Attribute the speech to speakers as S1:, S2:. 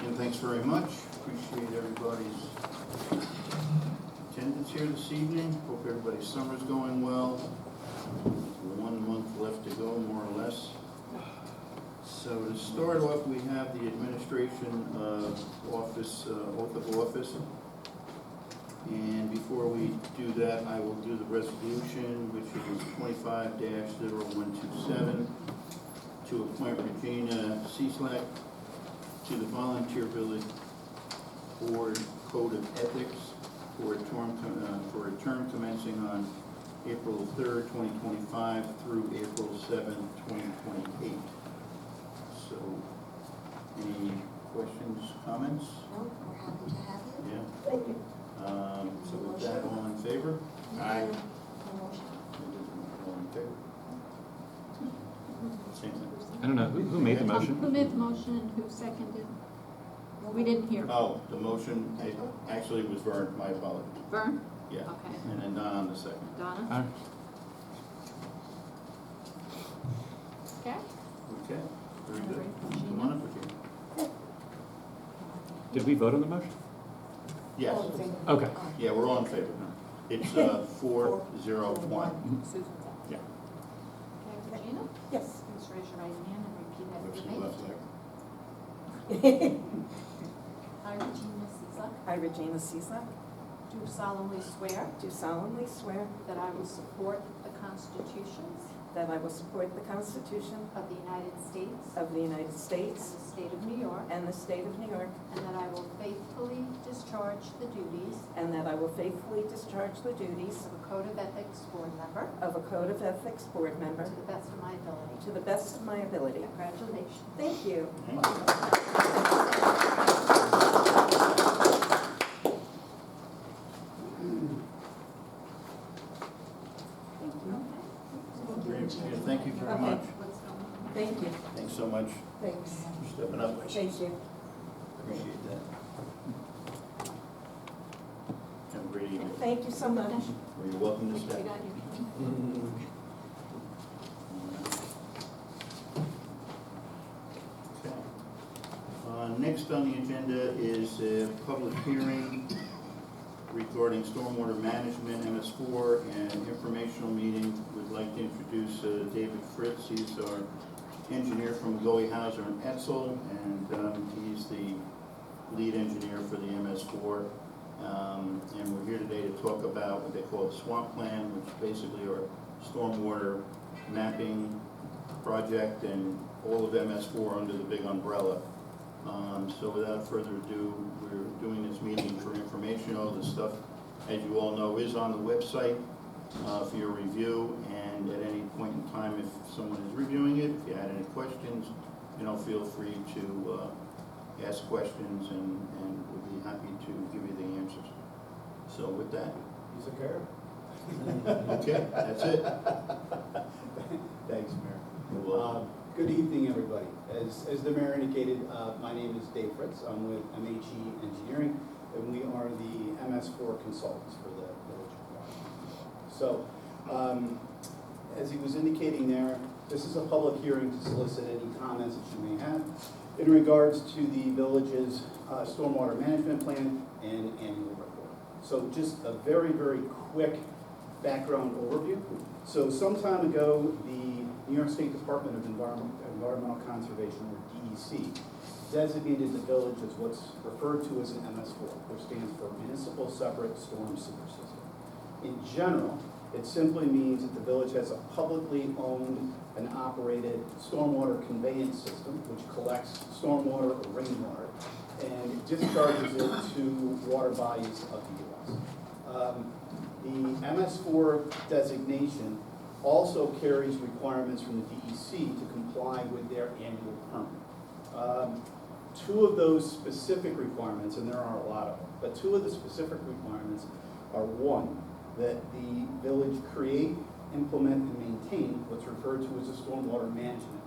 S1: Again, thanks very much. Appreciate everybody's attendance here this evening. Hope everybody's summer's going well. One month left to go, more or less. So to start off, we have the administration uh, office, uh, oath of office. And before we do that, I will do the resolution, which is twenty-five 127 to appoint Regina Cieslak to the Volunteer Village Board Code of Ethics for a term, com- uh, for a term commencing on April third, twenty twenty-five through April seventh, twenty twenty-eight. So, any questions, comments?
S2: No, we're happy to have you.
S1: Yeah? Um, so with that, all in favor? Aye. All in favor? Same thing.
S3: I don't know, who, who made the
S4: Um,
S3: motion?
S4: Who made the motion and who seconded? We didn't hear.
S1: Oh, the motion, it actually was Vern, my apologies,
S4: Vern?
S1: yeah.
S4: Okay.
S1: And then Don on the second.
S4: Donna?
S3: All right.
S4: Okay.
S1: Okay, very good. Come on up with you.
S3: Did we vote on the motion?
S1: Yes,
S3: Okay.
S1: yeah, we're all in favor now. It's uh, four, zero, one.
S4: Susan's up.
S1: Yeah.
S4: Okay, Regina?
S5: Yes.
S4: Please raise your right hand and repeat
S1: Which
S4: after
S1: is left
S4: me.
S1: leg.
S4: I, Regina Cizak,
S5: I, Regina Cieslak,
S4: do solemnly swear
S5: do solemnly swear
S4: that I will support the constitutions
S5: that I will support the Constitution
S4: of the United States
S5: of the United
S4: and
S5: States
S4: the state of New York,
S5: and the State of New York,
S4: and that I will faithfully discharge the duties
S5: and that I will faithfully discharge the duties
S4: of a Code of Ethics Board member
S5: of a Code of Ethics Board member
S4: to the best of my ability.
S5: to the best of my ability.
S4: Congratulations.
S5: Thank you.
S1: Thank you.
S5: Thank you.
S1: Very good. Thank you very
S5: Okay.
S1: much.
S5: Thank you.
S1: Thanks so much
S5: Thanks.
S1: for stepping up.
S5: Thank you.
S1: Appreciate that. Have a great evening.
S5: Thank you so much.
S1: Well, You're welcome to stay. Okay. Uh, Next on the agenda is a public hearing regarding stormwater management, MS4, and informational meeting. We'd like to introduce uh, David Fritz, he's our engineer from Goy Hauser and Etzel, and um, he's the lead engineer for the MS4. Um, And we're here today to talk about what they call the swamp plan, which basically are stormwater mapping project and all of MS4 under the big umbrella. Um, So without further ado, we're doing this meeting for information. All this stuff, as you all know, is on the website uh, for your review, and at any point in time, if someone is reviewing it, if you had any questions, you know, feel free to uh, ask questions, and and we'll be happy to give you the answers. So with that,
S6: He's a Arab.
S1: okay, that's it.
S6: Thanks, Mayor.
S1: You're
S6: Uh,
S1: welcome.
S6: Good evening, everybody. As, as the mayor indicated, uh, my name is Dave Fritz. I'm with MHE Engineering, and we are the MS4 consultants for the village of Florida. So, um, as he was indicating there, this is a public hearing to solicit any comments that you may have in regards to the village's uh, stormwater management plan and annual report. So just a very, very quick background overview. So some time ago, the New York State Department of Environment- Environmental Conservation, or DEC, designated the village as what's referred to as an MS4, which stands for Municipal Separate Storm Sewer System. In general, it simply means that the village has a publicly owned and operated stormwater conveyance system, which collects stormwater or rainwater and discharges it to water bodies of the U.S. Um, The MS4 designation also carries requirements from the DEC to comply with their annual permit. Um, Two of those specific requirements, and there are a lot of them, but two of the specific requirements are one, that the village create, implement, and maintain what's referred to as a stormwater management